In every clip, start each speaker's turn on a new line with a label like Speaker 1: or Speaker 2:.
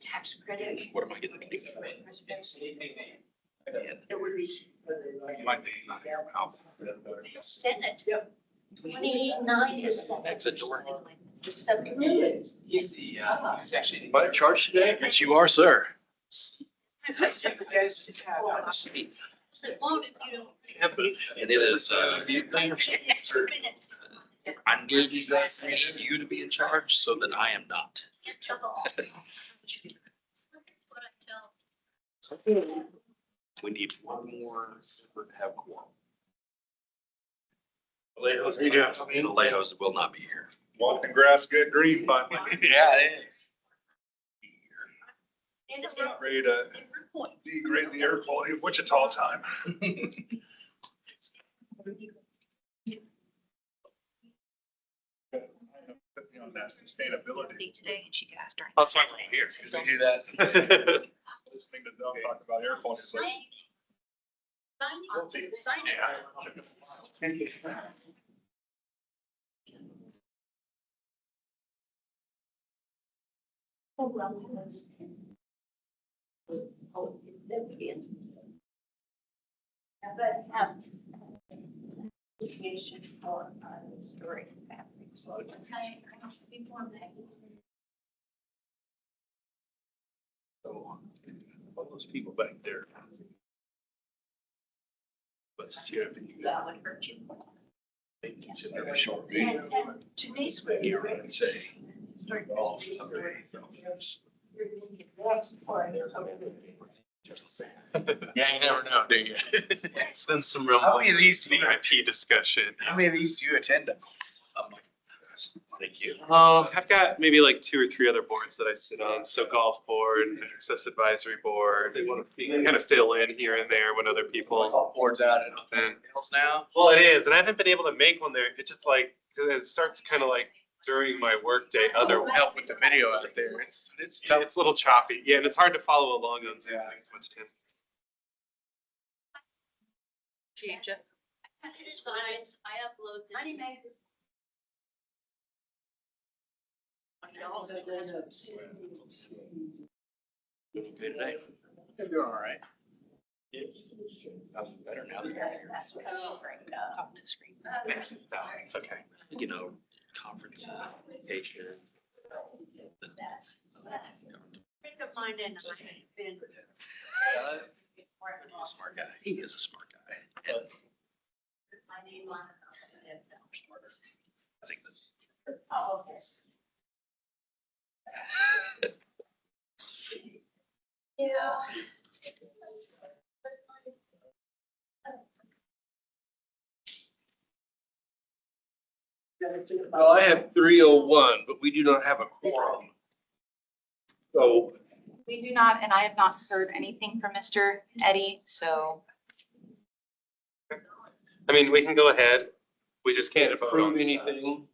Speaker 1: tax credit.
Speaker 2: What am I getting?
Speaker 1: It would be
Speaker 2: My name, not here, I'll.
Speaker 1: Senate. Twenty-nine is. the-
Speaker 2: Exit door.
Speaker 1: Just the-
Speaker 3: He's the, uh, he's actually.
Speaker 4: Am I in charge today?
Speaker 2: Yes, you are, sir.
Speaker 1: It's the vote if you don't-
Speaker 2: It is, uh,
Speaker 1: Two minutes.
Speaker 2: I'm giving you guys, I need you to be in charge so that I am not.
Speaker 1: Can't tell all. What I tell.
Speaker 2: We need one more for to have quorum.
Speaker 4: Alejos, you got
Speaker 2: And Alejos will not be here.
Speaker 4: Walk the grass, good green finally.
Speaker 2: Yeah, it is.
Speaker 1: And it's
Speaker 4: It's about ready to
Speaker 1: a different point.
Speaker 4: degrade the air quality of Wichita time. Put me on that Sustainability.
Speaker 1: Today and she could ask her.
Speaker 2: That's why we're here.
Speaker 4: We do that. Listening to them talk about air quality, it's like. guilty.
Speaker 1: Sign it. But, um, appreciation for, uh, the story. So, I, I don't think one
Speaker 2: um, All those people back there. But yeah,
Speaker 1: that would hurt you.
Speaker 2: they sit there short meeting.
Speaker 1: And, and today's where you're
Speaker 2: You're right, and say.
Speaker 1: Start
Speaker 2: "Oh,
Speaker 1: this meeting where
Speaker 2: sorry, no, it's-
Speaker 1: you're gonna get lost for it.
Speaker 2: Yeah, you never know, do you? Send some real.
Speaker 3: How many of these do you-
Speaker 5: VIP discussion.
Speaker 3: How many of these do you attend? Oh
Speaker 2: Thank you.
Speaker 5: Oh, I've got maybe like two or three other boards that I sit on, so golf board, access advisory board, and kind of fill in here and there when other people.
Speaker 3: All boards out and
Speaker 5: And,
Speaker 3: panels now.
Speaker 5: well, it is, and I haven't been able to make one there. It's just like, 'cause it starts kind of like during my workday otherwise.
Speaker 3: Help with the video out there. It's, it's tough.
Speaker 5: It's a little choppy, yeah, and it's hard to follow along on Zoom.
Speaker 3: Yeah.
Speaker 5: It's much tense.
Speaker 1: Change it. I did designs, I upload. Money makers.
Speaker 2: Okay today.
Speaker 3: You're doing all right.
Speaker 2: I'm better now than I am.
Speaker 1: Talk to the screen.
Speaker 2: Thank you. No, It's okay. You know, conference, uh, vacation.
Speaker 1: Friend of mine and I have been.
Speaker 2: Uh, he's a Smart guy. He is a smart guy. And
Speaker 1: My name on. it.
Speaker 2: I think that's.
Speaker 1: Oh, yes. Yeah.
Speaker 4: Well, I have three oh one, but we do not have a quorum. So
Speaker 6: We do not, and I have not heard anything from Mr. Eddie, so
Speaker 5: I mean, we can go ahead, we just
Speaker 4: can't
Speaker 5: can't vote on
Speaker 4: approve
Speaker 5: stuff.
Speaker 4: anything.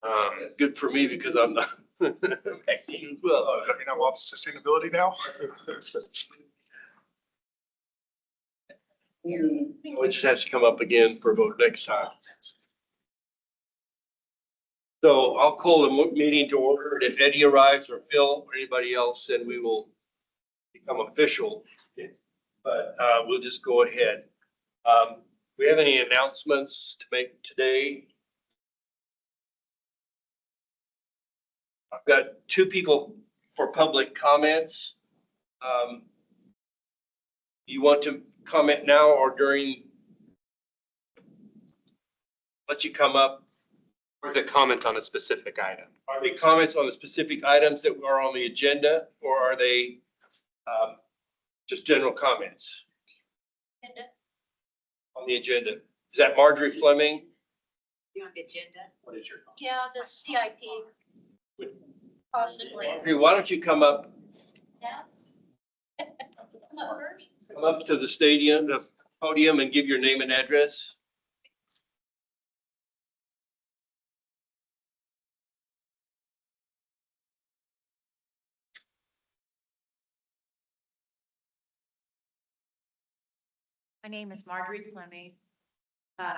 Speaker 5: Um,
Speaker 4: That's good for me because I'm not.
Speaker 3: Well, I mean, I'm off sustainability now.
Speaker 4: It just has to come up again for vote next time. So I'll call the mo- meeting to order. and If Eddie arrives or Phil or anybody else, then we will become official. But uh, we'll just go ahead. Um, We have any announcements to make today? I've got two people for public comments. Um, You want to comment now or during? Let you come up.
Speaker 5: or the comment on a specific item.
Speaker 4: Are they comments on the specific items that are on the agenda, or are they um, just general comments
Speaker 1: Agenda,
Speaker 4: on the agenda? Is that Marjorie Fleming?
Speaker 1: you on the agenda?
Speaker 2: What is your?
Speaker 1: Yeah, the CIP. Possibly.
Speaker 4: Marjorie, why don't you come up,
Speaker 1: Yeah. Come up first.
Speaker 4: come up to the stadium, the podium, and give your name and address?
Speaker 7: My name is Marjorie Fleming. Uh,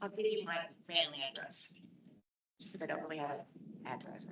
Speaker 7: I'll give you my mailing address. Because I don't really have an address.